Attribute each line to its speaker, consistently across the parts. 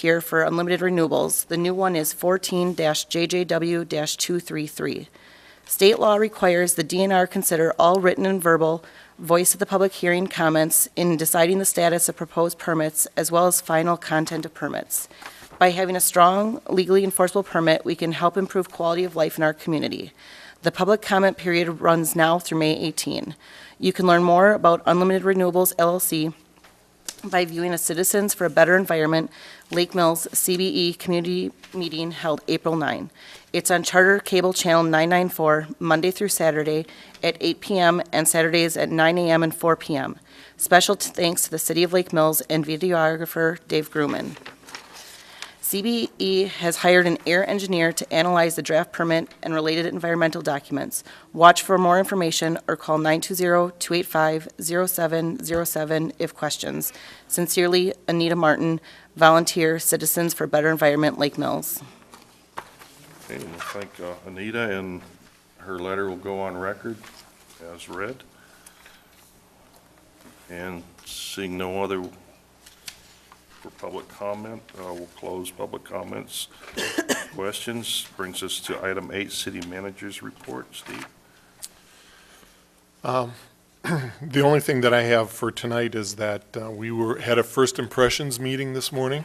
Speaker 1: here for unlimited renewables. The new one is 14-JJW-233. State law requires the DNR consider all written and verbal voice of the public hearing comments in deciding the status of proposed permits as well as final content of permits. By having a strong legally enforceable permit, we can help improve quality of life in our community. The public comment period runs now through May 18. You can learn more about Unlimited Renewables LLC by viewing a Citizens for a Better Environment Lake Mills CBE Community Meeting held April 9. It's on Charter Cable Channel 994, Monday through Saturday at 8 PM and Saturdays at 9 AM and 4 PM. Special t- thanks to the City of Lake Mills and videographer Dave Grumman. CBE E has hired an air engineer to analyze the draft permit and related environmental documents. Watch for more information or call 920-285-0707 if questions. Sincerely, Anita Martin, volunteer, Citizens for Better Environment, Lake Mills.
Speaker 2: Okay, and I think uh, Anita and her letter will go on record as read. And seeing no other for public comment, uh, we'll close public comments. Questions brings us to item eight, city manager's report. Steve?
Speaker 3: The only thing that I have for tonight is that uh, we were, had a first impressions meeting this morning,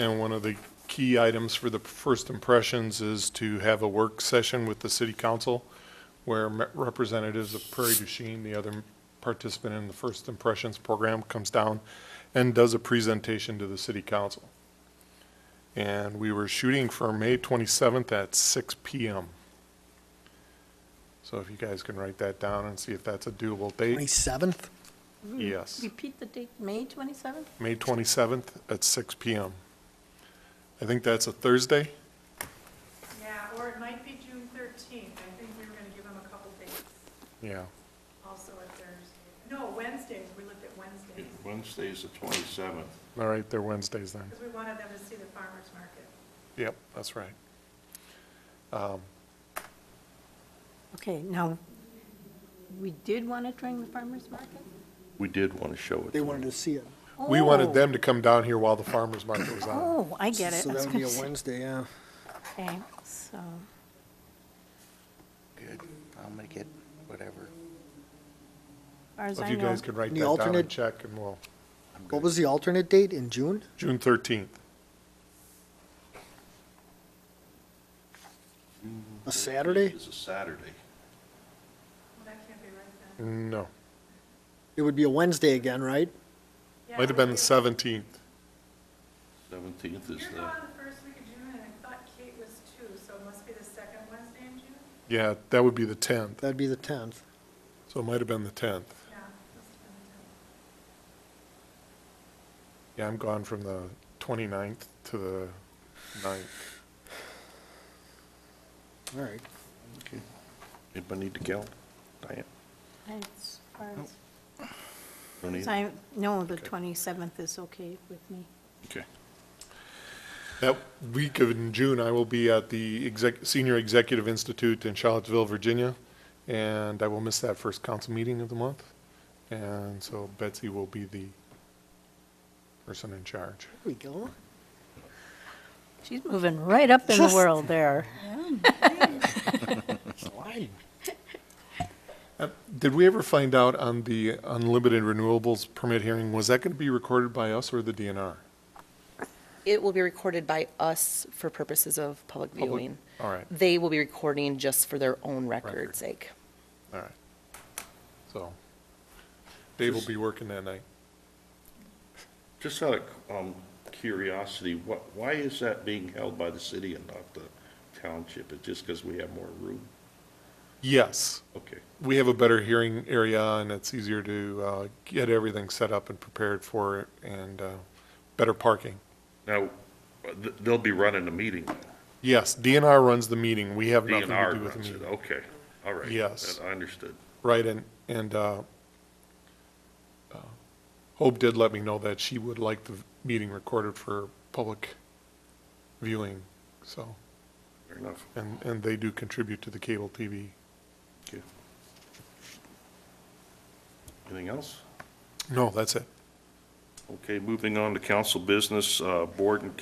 Speaker 3: and one of the key items for the first impressions is to have a work session with the city council where me- representatives of Prairie du Chien, the other participant in the first impressions program, comes down and does a presentation to the city council. And we were shooting for May 27th at 6 PM. So if you guys can write that down and see if that's a doable date.
Speaker 4: 27th?
Speaker 3: Yes,
Speaker 5: Hmm. Repeat the date, May 27th?
Speaker 3: May 27th at six PM. I think that's a Thursday.
Speaker 6: Yeah, or it might be June thirteenth, I think we were gonna give them a couple days,
Speaker 3: Yeah.
Speaker 6: also a Thursday, no, Wednesdays, we looked at Wednesdays,
Speaker 2: Wednesday's the twenty-seventh.
Speaker 3: All right, they're Wednesdays then.
Speaker 6: because we wanted them to see the farmer's market.
Speaker 3: Yep, that's right. Um,
Speaker 5: Okay, now, we did want to bring the farmer's market?
Speaker 2: We did want to show it.
Speaker 4: They wanted to see it.
Speaker 3: We wanted
Speaker 5: Oh,
Speaker 3: them to come down here while the farmer's market was on.
Speaker 5: Oh, I get it.
Speaker 4: So
Speaker 5: I was
Speaker 4: that would be a
Speaker 5: gonna say-
Speaker 4: Wednesday, yeah.
Speaker 5: Okay, so,
Speaker 7: Good, I'll make it, whatever.
Speaker 5: far as
Speaker 3: If
Speaker 5: I
Speaker 3: you
Speaker 5: know,
Speaker 3: guys could write
Speaker 4: The
Speaker 3: that down and
Speaker 4: alternate-
Speaker 3: check and we'll,
Speaker 4: What was the alternate date in June?
Speaker 3: June 13th.
Speaker 4: A Saturday?
Speaker 2: It's a Saturday.
Speaker 6: Well, that can't be right then.
Speaker 3: No,
Speaker 4: It would be a Wednesday again, right?
Speaker 6: Yeah,
Speaker 3: might have been the 17th.
Speaker 2: Seventeenth is
Speaker 6: You're
Speaker 2: the,
Speaker 6: gone the first week of June, and I thought Kate was too, so it must be the second Wednesday in June?
Speaker 3: Yeah, that would be the 10th.
Speaker 4: That'd be the 10th.
Speaker 3: So it might have been the 10th.
Speaker 6: Yeah, must have been the tenth.
Speaker 3: Yeah, I'm gone from the 29th to the 9th.
Speaker 4: All right.
Speaker 2: anybody need to go? Diane?
Speaker 5: as far
Speaker 4: Oh.
Speaker 5: as-
Speaker 2: Don't need
Speaker 5: as
Speaker 2: it?
Speaker 5: I know, the 27th is okay with me.
Speaker 2: Okay.
Speaker 3: That week of in June, I will be at the exec, Senior Executive Institute in Charlottesville, Virginia, and I will miss that first council meeting of the month. And so Betsy will be the person in charge.
Speaker 4: There we go.
Speaker 5: She's moving right up in the world there.
Speaker 4: Slide.
Speaker 3: Uh, Did we ever find out on the unlimited renewables permit hearing, was that going to be recorded by us or the DNR?
Speaker 1: It will be recorded by us for purposes of public
Speaker 3: Public-
Speaker 1: viewing.
Speaker 3: All right,
Speaker 1: They will be recording just for their own record's sake.
Speaker 3: all right. So Dave will be working that night.
Speaker 2: Just out of um, curiosity, what, why is that being held by the city and not the township? Is just because we have more room?
Speaker 3: Yes.
Speaker 2: Okay,
Speaker 3: we have a better hearing area and it's easier to uh, get everything set up and prepared for it and uh, better parking.
Speaker 2: now, uh, th- they'll be running the meeting.
Speaker 3: Yes, DNR runs the meeting. We have nothing to do
Speaker 2: DNR
Speaker 3: with the
Speaker 2: runs
Speaker 3: meeting.
Speaker 2: it, okay, all right.
Speaker 3: Yes.
Speaker 2: That- I understood.
Speaker 3: Right, and, and uh, uh, Hope did let me know that she would like the meeting recorded for public viewing, so,
Speaker 2: Fair enough.
Speaker 3: and, and they do contribute to the cable TV.
Speaker 2: Okay. Anything else?
Speaker 3: No, that's it.
Speaker 2: Okay, moving on to council business, uh, board and